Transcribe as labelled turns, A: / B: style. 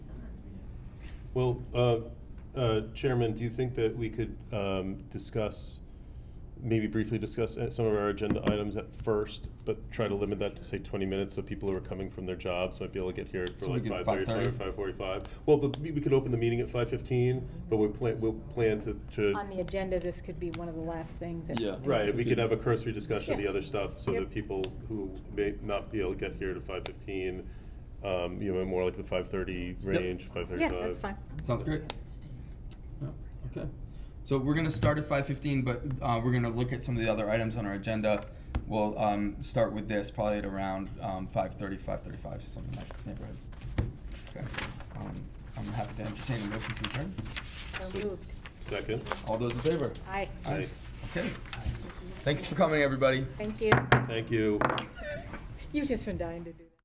A: Well, uh, uh, Chairman, do you think that we could um, discuss, maybe briefly discuss uh, some of our agenda items at first, but try to limit that to say 20 minutes, so people who are coming from their jobs might be able to get here for
B: So we
A: like
B: get
A: 5:30 or 5:45? Well, the- we we could open the meeting at 5:15, but we plan, we'll plan to-
C: On
A: to,
C: the agenda, this could be one of the last things. that-
B: Yeah.
A: right, we could have a cursory discussion of the
C: Yeah.
A: other stuff, so
C: Yep.
A: that people who may not be able to get here to 5:15, um, you know, more like the 5:30
B: Yep.
A: range, 5:35.
C: Yeah, that's fine.
B: Sounds great. Yeah, okay. So we're gonna start at five fifteen, but uh, we're gonna look at some of the other items on our agenda. We'll um, start with this probably at around um, 5.30, 5.35, something like that neighborhood. Okay. Um, I'm happy to entertain a motion to adjourn.
C: So moved.
A: Second?
B: All those in favor?
C: Aye.
A: Aye.
B: Okay. Thanks for coming, everybody.
C: Thank you.
A: Thank you.
C: You've just been dying to do.